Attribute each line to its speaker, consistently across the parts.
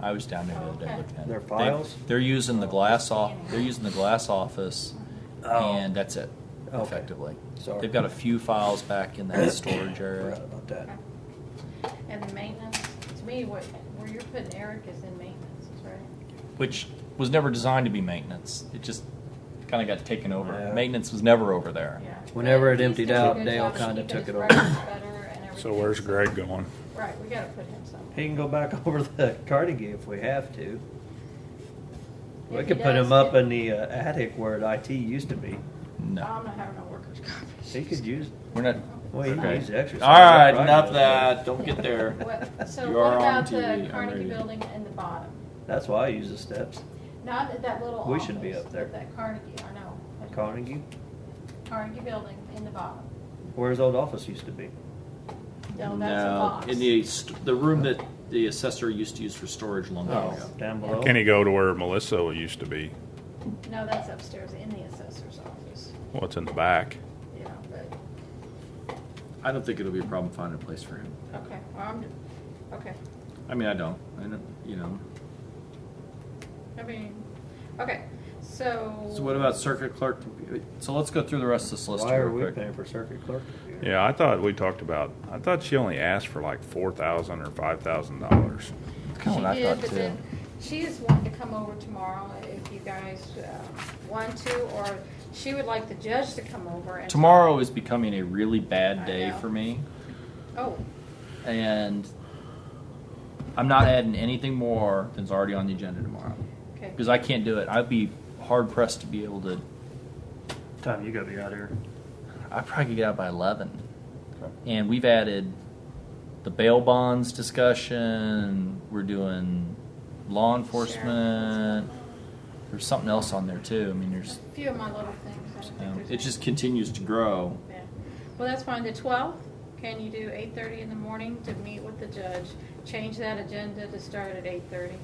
Speaker 1: I was down there the other day looking at it.
Speaker 2: Their
Speaker 1: They-
Speaker 2: files?
Speaker 1: They're using the glass off, they're using the glass office, and that's it,
Speaker 2: Oh. Okay.
Speaker 1: effectively.
Speaker 2: Sorry.
Speaker 1: They've got a few files back in that storage
Speaker 2: Forgot
Speaker 1: area.
Speaker 2: about that.
Speaker 3: And the maintenance, to me, what, where you're putting Eric is in maintenance, is right?
Speaker 1: which was never designed to be maintenance. It just kind of got taken over.
Speaker 2: Yeah.
Speaker 1: Maintenance was never over there.
Speaker 3: Yeah.
Speaker 2: Whenever it
Speaker 3: He's
Speaker 2: emptied
Speaker 3: doing a
Speaker 2: out,
Speaker 3: good
Speaker 2: Dale
Speaker 3: job, and
Speaker 2: kinda
Speaker 3: he
Speaker 2: took
Speaker 3: did his
Speaker 2: it over.
Speaker 3: records better and
Speaker 4: So
Speaker 3: everything.
Speaker 4: where's Greg going?
Speaker 3: Right, we gotta put him somewhere.
Speaker 2: He can go back over the Carnegie if we have to. We
Speaker 3: If
Speaker 2: could
Speaker 3: he
Speaker 2: put
Speaker 3: does,
Speaker 2: him up
Speaker 3: if-
Speaker 2: in the uh, attic where IT used to be.
Speaker 3: I'm
Speaker 1: No,
Speaker 3: not having a workers' comp.
Speaker 2: He could use,
Speaker 1: we're not.
Speaker 2: well, he
Speaker 1: Okay.
Speaker 2: can use the exercise.
Speaker 5: All right,
Speaker 2: Right,
Speaker 5: enough
Speaker 2: that's
Speaker 5: that. Don't get there.
Speaker 3: What- So
Speaker 5: You
Speaker 3: what
Speaker 5: are on
Speaker 3: about
Speaker 5: TV,
Speaker 3: the
Speaker 5: I'm
Speaker 3: Carnegie
Speaker 5: reading.
Speaker 3: Building and the bottom?
Speaker 2: good. That's why I use the steps.
Speaker 3: Not at that little
Speaker 2: We
Speaker 3: office,
Speaker 2: should be up there.
Speaker 3: but that Carnegie, I know. but
Speaker 2: Carnegie,
Speaker 3: Carnegie Building in the bottom.
Speaker 2: where his old office used to be.
Speaker 3: No, that's a box.
Speaker 5: in the st- the room that the assessor used to use for storage long time
Speaker 3: Yes.
Speaker 5: ago.
Speaker 2: Oh. Down below.
Speaker 4: Can he go to where Melissa used to be?
Speaker 3: No, that's upstairs in the assessor's office,
Speaker 4: What's in the back?
Speaker 3: yeah, but,
Speaker 5: I don't think it'll be a problem finding a place for him.
Speaker 3: okay, well, I'm, okay.
Speaker 5: I mean, I don't. I don't. You know.
Speaker 3: I mean, okay, so.
Speaker 5: So what about circuit clerk? compu- So let's go through the rest of this list
Speaker 2: Why
Speaker 5: here
Speaker 2: are
Speaker 5: real
Speaker 2: we
Speaker 5: quick.
Speaker 2: paying for circuit clerk? computer?
Speaker 4: Yeah, I thought we talked about. I thought she only asked for like four thousand or five thousand dollars.
Speaker 1: That's
Speaker 3: She
Speaker 1: kind of what I
Speaker 3: did,
Speaker 1: thought
Speaker 3: but
Speaker 1: too.
Speaker 3: then she is wanting to come over tomorrow if you guys uh, want to, or she would like the judge to come over and.
Speaker 5: Tomorrow is becoming a really
Speaker 3: I
Speaker 5: bad day
Speaker 3: know.
Speaker 5: for me,
Speaker 3: Oh,
Speaker 5: and I'm not adding anything more than's already on the agenda tomorrow
Speaker 3: okay.
Speaker 5: because I can't do it. I'd be hard pressed to be able to.
Speaker 2: Tom, you gotta be out here.
Speaker 1: I probably could get out by eleven, and we've added the bail bonds discussion. We're doing law enforcement. There's something else on there too. I mean,
Speaker 3: A
Speaker 1: there's
Speaker 3: few of my little things. I don't think
Speaker 1: Yeah.
Speaker 3: there's
Speaker 5: It just continues to grow.
Speaker 3: any- yeah. Well, that's fine. The twelfth, can you do eight thirty in the morning to meet with the judge? Change that agenda to start at eight thirty.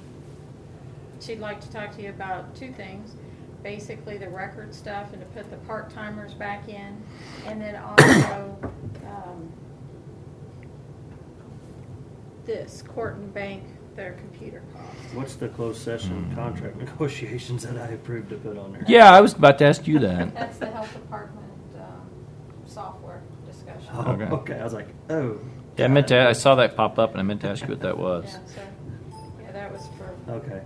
Speaker 3: She'd like to talk to you about two things, basically the record stuff and to put the part-timers back in, and then also, um, this, Court and Bank, their computer cost.
Speaker 2: What's the closed session
Speaker 4: Hmm.
Speaker 2: contract negotiations that I approved to put on there?
Speaker 5: Yeah, I was about to ask you that.
Speaker 3: That's the health department, um, software discussion.
Speaker 2: Oh,
Speaker 5: Okay.
Speaker 2: okay, I was like, oh.
Speaker 5: Yeah, I meant to. I saw that pop up, and I meant to ask you what that was.
Speaker 3: Yeah, so, yeah, that was for,
Speaker 2: Okay.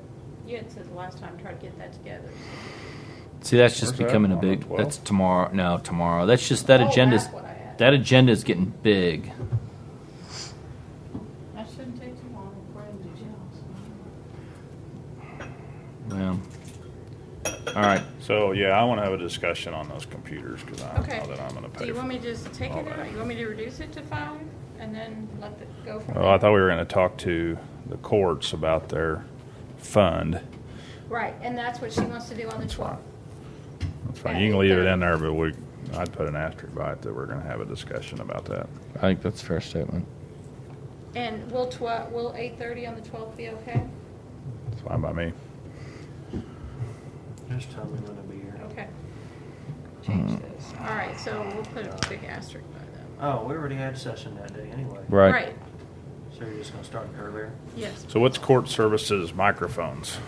Speaker 3: you had said the last time, try to get that together.
Speaker 5: See, that's just
Speaker 4: Where's that?
Speaker 5: becoming a
Speaker 4: On the
Speaker 5: big.
Speaker 4: 12th?
Speaker 5: That's tomorrow. No, tomorrow. That's just that
Speaker 3: Oh,
Speaker 5: agenda's.
Speaker 3: that's what I had.
Speaker 5: That agenda's getting big.
Speaker 3: That shouldn't take too long for them to
Speaker 5: Well, all right.
Speaker 4: So yeah, I want to have a discussion on those computers because I
Speaker 3: Okay.
Speaker 4: know that I'm going to pay.
Speaker 3: Do you
Speaker 4: for
Speaker 3: want me to just take
Speaker 4: all
Speaker 3: it out?
Speaker 4: that.
Speaker 3: You want me to reduce it to five and then let the, go from
Speaker 4: Well, Oh, I
Speaker 3: there?
Speaker 4: thought we were going to talk to the courts about their fund.
Speaker 3: Right, and that's what she wants to do on the twelfth.
Speaker 4: That's fine. You can leave it in there, but we, I'd put an asterisk by it that we're going to have a discussion about that.
Speaker 5: I think that's a fair statement.
Speaker 3: And will twelve, will eight thirty on the twelfth be okay?
Speaker 4: It's fine by me.
Speaker 2: Just tell me when I'll be here.
Speaker 3: Okay. Change
Speaker 5: Hmm.
Speaker 3: this.
Speaker 4: Hmm.
Speaker 3: All right, so we'll put a big asterisk by that.
Speaker 2: Oh, we already had session that day anyway.
Speaker 5: Right.
Speaker 3: Right,
Speaker 2: So you're just gonna start earlier?
Speaker 3: yes.
Speaker 4: So what's court services microphones?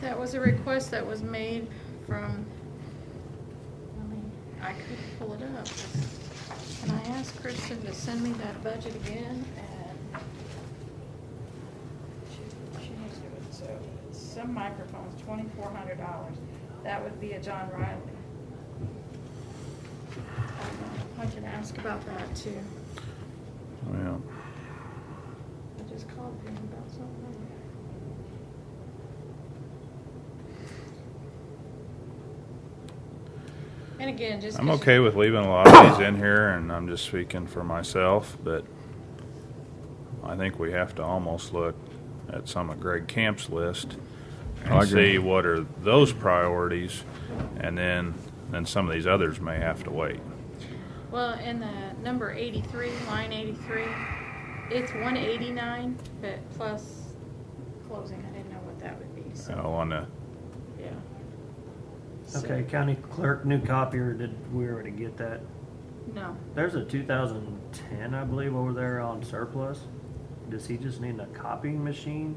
Speaker 3: That was a request that was made from, I mean, I couldn't pull it up. And I asked Kristen to send me that budget again and she, she didn't do it, so it's some microphones, twenty-four hundred dollars. That would be a John Riley. I can ask about that too.
Speaker 4: Yeah.
Speaker 3: I just called him about something. And again, just.
Speaker 4: I'm okay with leaving a lot of these in here, and I'm just speaking for myself, but I think we have to almost look at some of Greg Camp's list
Speaker 5: I
Speaker 4: and
Speaker 5: agree.
Speaker 4: see what are those priorities, and then, then some of these others may have to wait.
Speaker 3: Well, in the number eighty-three, line eighty-three, it's one eighty-nine, but plus closing, I didn't know what that would be,
Speaker 4: You
Speaker 3: so,
Speaker 4: know, on the,
Speaker 3: yeah.
Speaker 2: Okay, county clerk, new copier, did we already get that?
Speaker 3: No,
Speaker 2: There's a two thousand ten, I believe, over there on surplus. Does he just need a copying machine?